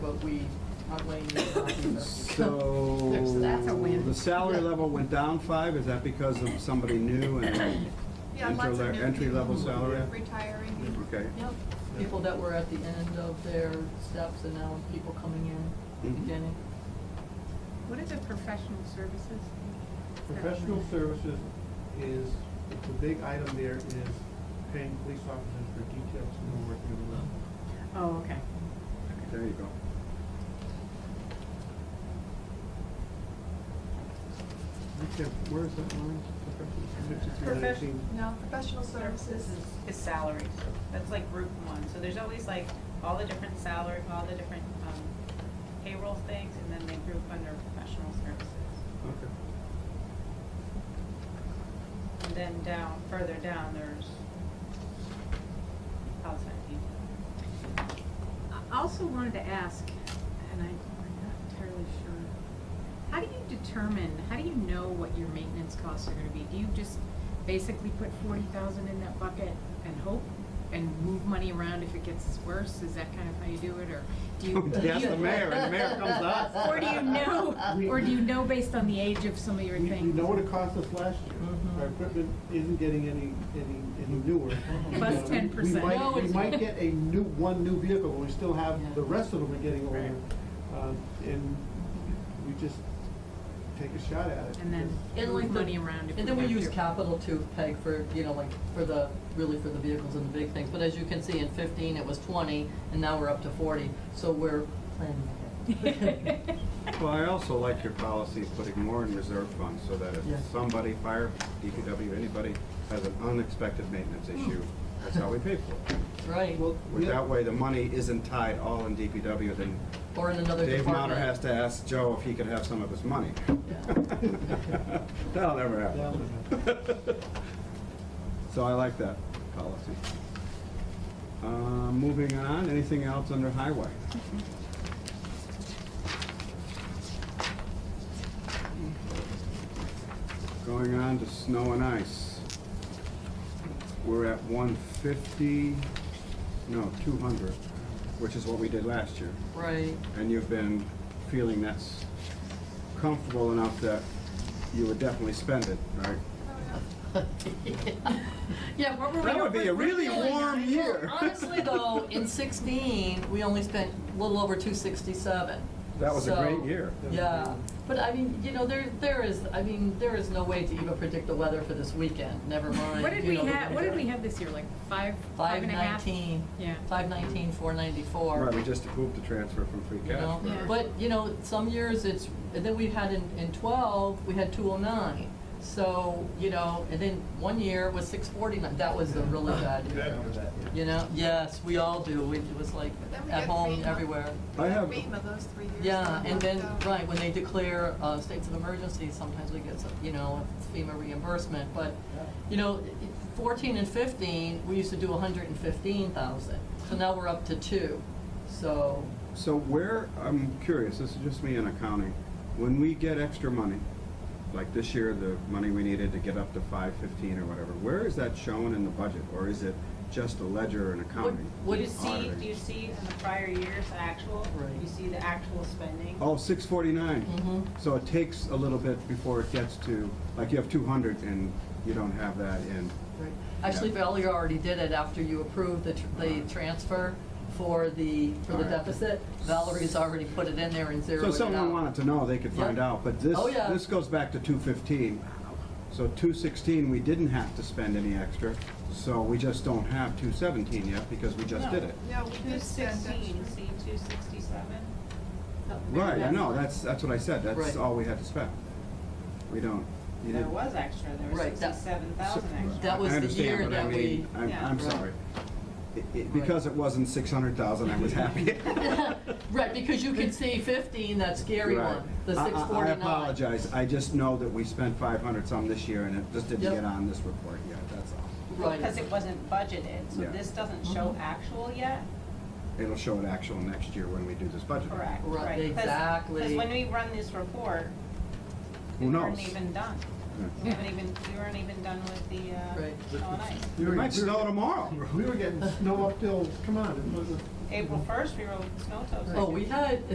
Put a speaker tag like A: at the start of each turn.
A: I'll blame you for that.
B: So,
A: That's a win.
B: the salary level went down five, is that because of somebody new and,
C: Yeah, lots of
B: Entry
C: new
B: le- entry-level
C: people
B: salary?
C: Retiring.
B: okay?
A: Yep, people that were at the end of their steps and now people coming in,
B: Mhm.
A: beginning.
C: What is it, professional services?
D: Professional services is, the big item there is paying police officers for details who are working on the road.
C: Oh, okay.
B: There you go. Okay, where is that line? Professional services,
E: Professional,
B: 118.
E: no, professional services
F: services is, is salaries. That's like group one. So there's always like all the different salary, all the different um, payroll things, and then they group under professional services.
B: Okay.
F: And then down, further down, there's outside people.
C: I also wanted to ask, and I- I'm not entirely sure, how do you determine, how do you know what your maintenance costs are gonna be? Do you just basically put forty thousand in that bucket and hope and move money around if it gets worse? Is that kind of how you do it, or do you?
B: Don't ask the mayor, and the mayor comes to us.
C: Or do you know, or do you know based on the age of some of your
D: We,
C: things?
D: we know what it cost us last year. Our equipment isn't getting any, any, any newer.
C: Plus
D: You know, we-
C: 10%.
D: We
A: No,
D: might, we
A: it's-
D: might get a new, one new vehicle, but we still have,
A: Yeah.
D: the rest of them are getting
C: Right.
D: older. Um, And we just take a shot at it.
C: And then
D: because-
A: And like
C: move
A: the-
C: money around if we have to.
A: And then we use capital to peg for, you know, like, for the, really for the vehicles and the big things. But as you can see, in fifteen, it was twenty, and now we're up to forty, so we're planning ahead.
B: Well, I also like your policy of putting more in reserve funds so that if
A: Yeah.
B: somebody, fire, DPW, anybody has an unexpected maintenance issue, that's how we pay for it.
A: Right,
D: Well,
B: With
D: yeah.
B: that way, the money isn't tied all in DPW, then
A: or in another
B: Dave
A: department.
B: Motter has to ask Joe if he could have some of his money. That'll never happen. So I like that policy. Uh, Moving on, anything else under highway? Going on to snow and ice. We're at 150, no, 200, which is what we did last year.
A: Right,
B: And you've been feeling that's comfortable enough that you would definitely spend it, right?
A: yeah, we're, we're.
B: That would be a really
A: we're feeling-
B: warm year.
A: Well, Honestly, though, in sixteen, we only spent a little over two sixty-seven.
B: That was a great year.
A: Yeah, but I mean, you know, there, there is, I mean, there is no way to even predict the weather for this weekend, never mind.
C: What did
A: you
C: we
A: know, the
C: have, what did
A: winter.
C: we have this year, like five, five
A: Five
C: and a half?
A: nineteen.
C: Yeah.
A: Five nineteen, four ninety-four.
B: Right, we just approved the transfer from free
A: You know,
B: cash.
C: Yeah.
A: but, you know, some years it's, and then we had in, in twelve, we had two oh nine. So, you know, and then one year was six forty-nine, that was a really bad year. You know, yes, we all do, We- it was like
E: But then we
A: at
E: got
A: home,
E: FEMA.
A: everywhere.
B: I have,
E: FEMA, those three years.
A: Yeah,
E: that
A: and then,
E: locked down.
A: right, when they declare uh, states of emergency, sometimes we get, some, you know, FEMA reimbursement, but, you know, fourteen and fifteen, we used to do hundred and fifteen thousand, so now we're up to two, so,
B: so where, I'm curious, this is just me in accounting, when we get extra money, like this year, the money we needed to get up to five fifteen or whatever, where is that shown in the budget? Or is it just a ledger and accounting?
A: What
F: do you
A: is
F: see?
B: auditing?
F: Do you see in the prior year's actual?
A: Right.
F: You see the actual spending.
B: Oh, six forty-nine.
A: mhm.
B: So it takes a little bit before it gets to, like you have two hundred and you don't have that in.
A: Right. Actually, Valerie already did it after you approved the, tr- the transfer for the, for the
B: Alright.
A: deficit. Valerie's already put it in there and zeroed it
B: So
A: out.
B: if someone wanted to know, they could find
A: Yeah.
B: out, but this,
A: Oh, yeah.
B: this goes back to two fifteen. So two sixteen, we didn't have to spend any extra, so we just don't have two seventeen yet because we just
F: No.
B: did it.
E: Yeah, we
F: Two
E: did spend
F: sixteen,
E: extra.
F: see two sixty-seven?
B: Right, I know, that's, that's what I said,
A: Right.
B: that's all we had to spend. We don't, you
F: There
B: didn't.
F: was extra, there was
A: Right, that-
F: sixty-seven thousand extra.
A: That was
B: I
A: the
B: understand,
A: year
B: but I
A: that we-
B: mean, I'm,
F: Yeah.
B: I'm
A: Right.
B: sorry. It- it- Because it wasn't six hundred thousand, I was happy.
A: Right, because you can see fifteen, that scary
B: Right.
A: one, the
B: I- I-
A: six forty-nine.
B: I apologize, I just know that we spent five hundred some this year, and it just didn't
A: Yep.
B: get on this report yet, that's all.
F: Because
A: Right,
F: it wasn't budgeted, so
B: Yeah.
F: this doesn't show actual yet,
B: It'll show an actual next year when we do this budget.
F: correct?
A: Right,
F: Because
A: exactly.
F: when we run this report, we
B: Who
F: weren't
B: knows?
F: even done.
B: Yeah.
F: We haven't even, we weren't even done with the,
A: Right.
F: uh, snow and ice.
D: We
B: It
D: were-
B: might
D: we were-
B: snow tomorrow.
D: We were getting snow up till, come on, it was a
F: April first, we wrote snow totals.
A: oh, we had,